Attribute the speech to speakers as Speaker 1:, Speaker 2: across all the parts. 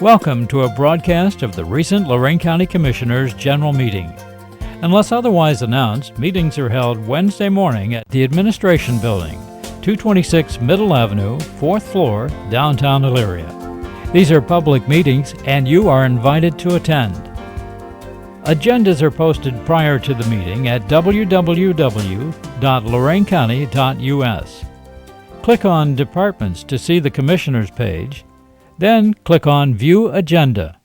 Speaker 1: Welcome to a broadcast of the recent Lorraine County Commissioners' General Meeting. Unless otherwise announced, meetings are held Wednesday morning at the Administration Building, 226 Middle Avenue, 4th floor, downtown Elyria. These are public meetings and you are invited to attend. Agendas are posted prior to the meeting at www.loraincounty.us. Click on Departments to see the Commissioners page, then click on View Agenda.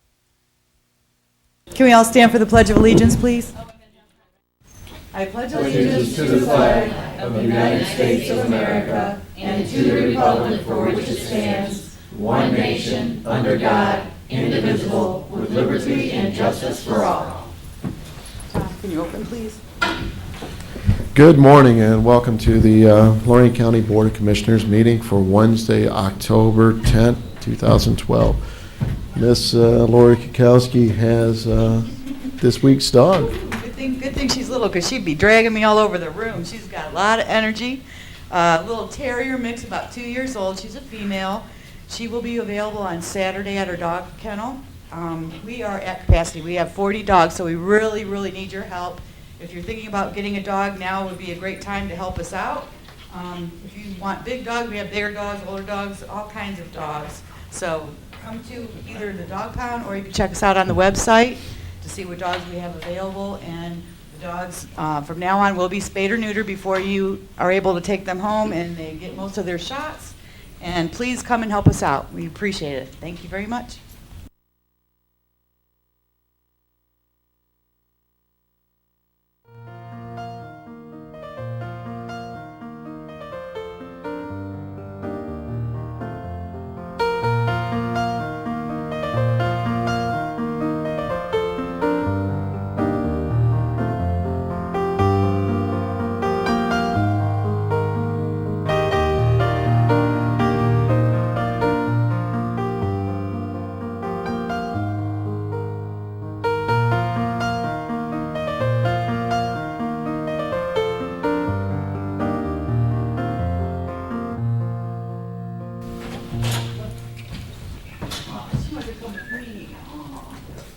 Speaker 2: Can we all stand for the Pledge of Allegiance, please?
Speaker 3: Good morning and welcome to the uh, Lorraine County Board of Commissioners meeting for Wednesday, October 10th, 2012. Miss uh, Lori Kukowski has uh, this week's dog.
Speaker 2: Good thing, good thing she's little, because she'd be dragging me all over the room. She's got a lot of energy. Uh, Little terrier mix, about two years old. She's a female. She will be available on Saturday at her dog kennel. Um, We are at capacity. We have 40 dogs, so we really, really need your help. If you're thinking about getting a dog, now would be a great time to help us out. Um, If you want big dogs, we have bigger dogs, older dogs, all kinds of dogs. So come to either the dog pound, or you can check us out on the website to see what dogs we have available. And the dogs, uh, from now on, will be spayed or neutered before you are able to take them home, and they get most of their shots. And please come and help us out. We appreciate it. Thank you very much.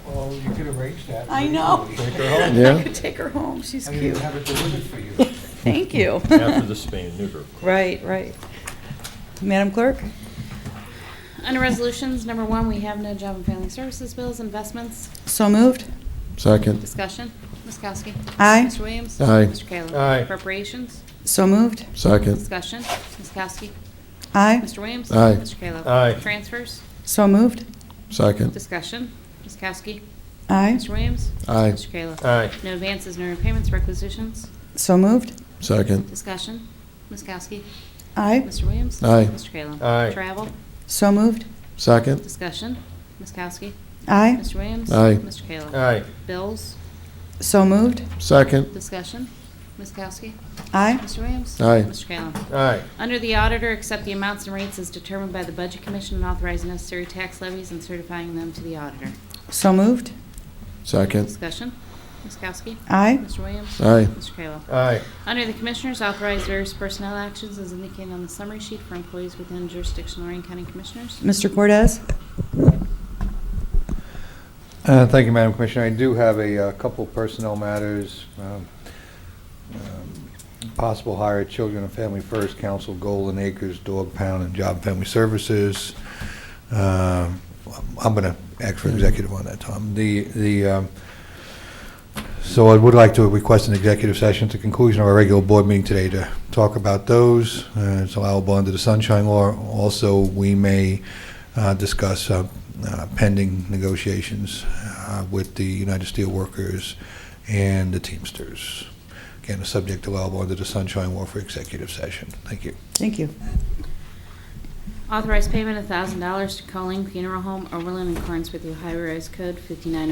Speaker 4: Well, you could arrange that.
Speaker 2: I know.
Speaker 4: Take her home.
Speaker 3: Yeah?
Speaker 2: Take her home. She's
Speaker 4: I didn't have it delivered for you.
Speaker 2: Thank you.
Speaker 5: after the spay and neuter.
Speaker 2: Right, right. Madam Clerk?
Speaker 6: Under resolutions, number one, we have no job and family services bills, investments,
Speaker 2: So moved.
Speaker 3: Second,
Speaker 6: discussion. Ms. Kowski.
Speaker 2: Aye.
Speaker 6: Mr. Williams.
Speaker 3: Aye.
Speaker 6: Mr. Kayla.
Speaker 4: Aye.
Speaker 6: Appropriations,
Speaker 2: So moved.
Speaker 3: second,
Speaker 6: discussion. Ms. Kowski.
Speaker 2: Aye.
Speaker 6: Mr. Williams.
Speaker 3: Aye.
Speaker 6: Mr. Kayla.
Speaker 4: Aye.
Speaker 6: Transfers,
Speaker 2: So moved.
Speaker 3: second,
Speaker 6: discussion. Ms. Kowski.
Speaker 2: Aye.
Speaker 6: Mr. Williams.
Speaker 3: Aye.
Speaker 6: Mr. Kayla.
Speaker 4: Aye.
Speaker 6: No advances, no repayments, requisitions,
Speaker 2: So moved.
Speaker 3: second,
Speaker 6: discussion. Ms. Kowski.
Speaker 2: Aye.
Speaker 6: Mr. Williams.
Speaker 3: Aye.
Speaker 6: Mr. Kayla.
Speaker 4: Aye.
Speaker 6: Travel,
Speaker 2: So moved.
Speaker 3: second,
Speaker 6: discussion. Ms. Kowski.
Speaker 2: Aye.
Speaker 6: Mr. Williams.
Speaker 3: Aye.
Speaker 6: Mr. Kayla.
Speaker 4: Aye.
Speaker 6: Bills,
Speaker 2: So moved.
Speaker 3: second,
Speaker 6: discussion. Ms. Kowski.
Speaker 2: Aye.
Speaker 6: Mr. Williams?
Speaker 3: Aye.
Speaker 6: Mr. Kayla?
Speaker 4: Aye.
Speaker 6: Under the auditor, accept the amounts and rates as determined by the Budget Commission and authorize necessary tax levies and certifying them to the auditor.
Speaker 2: So moved.
Speaker 3: second,
Speaker 6: Discussion? Ms. Kowski?
Speaker 2: Aye.
Speaker 6: Mr. Williams?
Speaker 3: Aye.
Speaker 6: Mr. Kayla?
Speaker 4: Aye.
Speaker 6: Under the Commissioners, authorize various personnel actions as indicated on the summary sheet for employees within jurisdiction Lorraine County Commissioners.
Speaker 2: Mr. Cortez?
Speaker 4: Uh, Thank you, Madam Commissioner. I do have a uh, couple personnel matters. um, um, Possible hire at Children and Family First Council, Golden Acres, Dog Pound, and Job and Family Services. Um, I'm going to ask for executive on that, Tom. The, the, um, so I would like to request an executive session at the conclusion of our regular board meeting today to talk about those. Uh, It's allowable under the Sunshine Law. Also, we may uh, discuss uh, uh, pending negotiations uh, with the United Steelworkers and the Teamsters. Again, a subject allowable under the Sunshine Law for executive session. Thank you.
Speaker 2: Thank you.
Speaker 6: Authorize payment of $1,000 to Colleen Funeral Home, Overland, in accordance with the Ohio Revised Code 59